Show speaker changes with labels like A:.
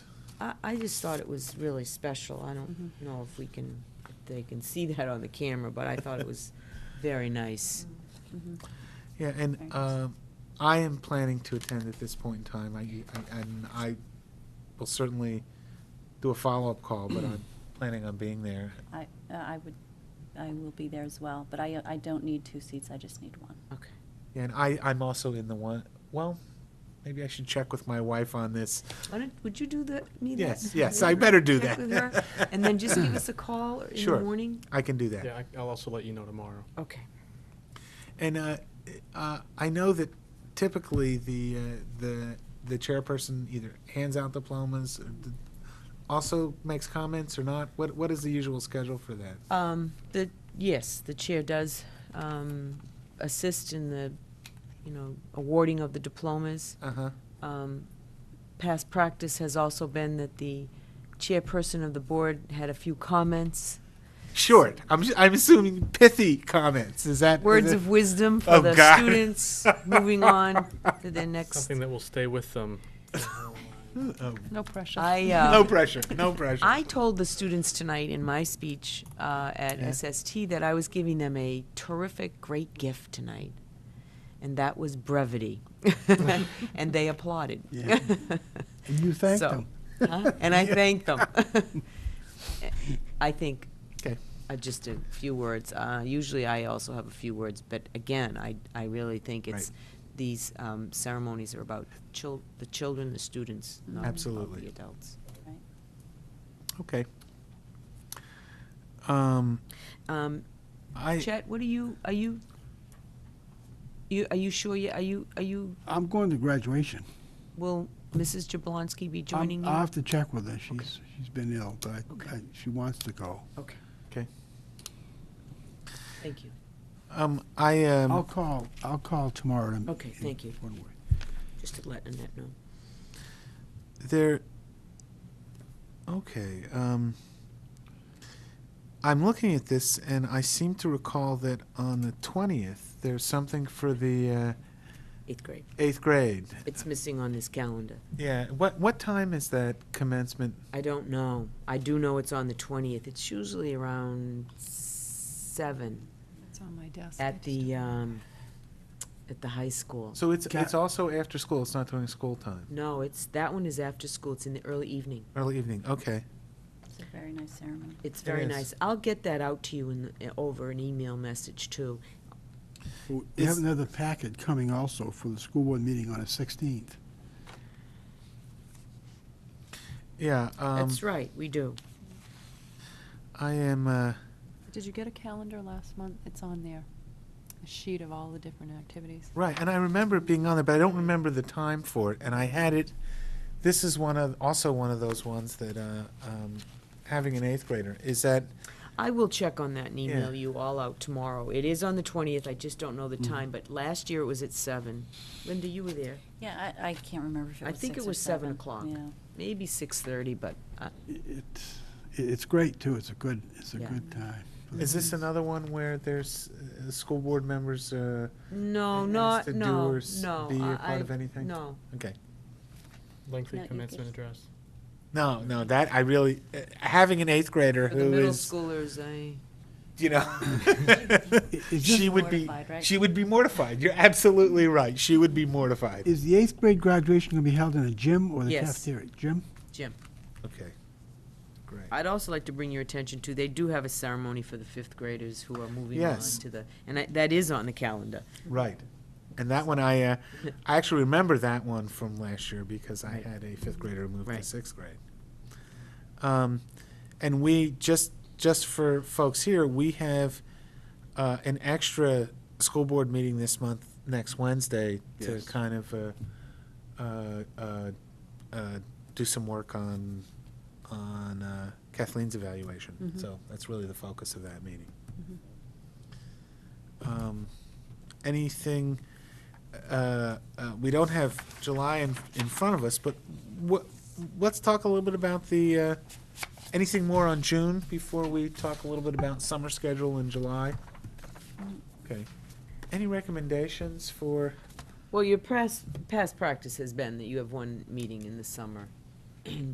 A: I, I just thought it was really special. I don't know if we can, if they can see that on the camera, but I thought it was very nice.
B: Mm-hmm.
C: Yeah, and
B: Thanks.
C: um, I am planning to attend at this point in time. I, I- and I will certainly do a follow-up call, but I'm planning on being there.
B: I, uh, I would, I will be there as well, but I, I don't need two seats, I just need one.
A: Okay.
C: And I, I'm also in the one, well, maybe I should check with my wife on this.
A: Why don't, would you do that, me that?
C: Yes, yes, I better do
A: Check
C: that.
A: with her, And then just give us a call in the
C: Sure.
A: morning?
C: I can do that.
D: Yeah, I- I'll also let you know tomorrow.
A: Okay.
C: And uh, uh, I know that typically the uh, the the chairperson either hands out diplomas, or d- also makes comments or not. What what is the usual schedule for that?
A: Um, the, yes, the chair does, um, assist in the, you know, awarding of the diplomas.
C: Uh huh.
A: Um, Past practice has also been that the chairperson of the board had a few comments,
C: Short. I'm ju- I'm assuming pithy comments. Is that is
A: words
C: it-
A: of wisdom for
C: Oh,
A: the
C: God.
A: students, moving on to their next.
D: Something that will stay with um, them.
C: Oh,
B: No pressure.
A: I,
C: no
A: uh,
C: pressure. No pressure.
A: I told the students tonight in my speech uh, at
C: Yeah.
A: SST that I was giving them a terrific, great gift tonight, and that was brevity, and they applauded.
E: Yeah. And you thanked
A: So-
E: them.
A: Huh? And I thanked them. I think
C: okay.
A: Uh, just a few words. Uh, usually, I also have a few words, but again, I, I really think it's these um, ceremonies are about chil- the children, the students, not about
C: Absolutely.
A: the adults.
B: Right.
C: Okay. Um,
A: Um,
C: I
A: Chet, what are you? Are you? You are you sure? You, are you? Are you?
E: I'm going to graduation.
A: Will Mrs. Jablonski be
E: I'm-
A: joining
E: I'll
A: you?
E: have to check with her. She's, she's been ill, but I- I, she wants to go.
A: Okay,
C: okay.
A: thank you.
C: Um, I um.
A: Oh.
E: I'll call, I'll call tomorrow. to-
A: Okay, thank you.
E: one way.
A: Just to let Annette know.
C: There. Okay. Um, I'm looking at this, and I seem to recall that on the twentieth, there's something for the uh,
A: Eighth grade.
C: eighth grade.
A: It's missing on this calendar.
C: Yeah. What what time is that commencement?
A: I don't know. I do know it's on the twentieth. It's usually around seven.
F: It's on my desk. I
A: At
F: just
A: the, um, at the high school.
C: So it's
E: Ca-
C: it's also after school. It's not during school time.
A: No, it's, that one is after school, it's in the early evening.
C: Early evening. Okay.
B: It's a very nice ceremony.
A: It's very
C: is.
A: nice. I'll get that out to you in, the- eh, over an email message too.
E: Well, We have
C: Is-
E: another packet coming also for the school board meeting on the 16th.
C: Yeah. Um,
A: That's right, we do.
C: I am. Uh,
F: don't- Did you get a calendar last month? It's on there, a sheet of all the different activities.
C: Right, and I remember it being on there, but I don't remember the time for it. And I had it. This is one of also one of those ones that uh, um, having an eighth grader is that
A: I will check on that and email
C: Yeah.
A: you all out tomorrow. It is on the twentieth, I just don't know the
C: Mm-hmm.
A: time, but last year it was at seven. Linda, you were there.
B: Yeah, I, I can't remember if it
A: I
B: was
A: think
B: six
A: it
B: or
A: was seven
B: seven.
A: o'clock.
B: Yeah.
A: Maybe six-thirty, but, uh,
E: I- It's, i- it's great, too. It's a good, it's a
A: Yeah.
E: good time. for the
C: is this
E: kids.
A: Mm-hmm.
C: another one where there's uh, school board members? Uh,
A: no,
C: Has
A: not,
C: to do
A: no,
C: or
A: no.
C: s- be a part
A: I-
C: of anything?
A: No,
C: okay,
D: Lengthy
B: Not you,
D: commencement
B: Chris.
D: address.
C: no, no, that I really uh, having an eighth grader
A: for the
C: who
A: middle
C: is
A: schoolers, eh? I.
C: you know
E: is
C: she
E: this-
C: would be
B: Mortified, right?
C: she would be mortified. You're absolutely right. She would be mortified.
E: Is the eighth grade graduation going to be held in a gym or the
A: Yes.
E: cafeteria? Gym?
A: Jim,
C: okay, great.
A: I'd also like to bring your attention to, they do have a ceremony for the fifth graders who are moving on
C: Yes.
A: to the, and I- that is on the calendar.
C: Right. And that one, I, uh, I actually remember that one from last year because I had a fifth grader move to
A: Right.
C: sixth grade. Um, and we, just, just for folks here, we have, uh, an extra school board meeting this month, next Wednesday, to
E: Yes.
C: kind of, uh, uh, uh, uh, do some work on, on uh, Kathleen's evaluation. So that's really the focus of that meeting. Um, anything, uh, uh, we don't have July in, in front of us, but what, let's talk a little bit about the, uh, anything more on June before we talk a little bit about summer schedule in July? Okay. Any recommendations for,
A: Well, your past, past practice has been that you have one meeting in the summer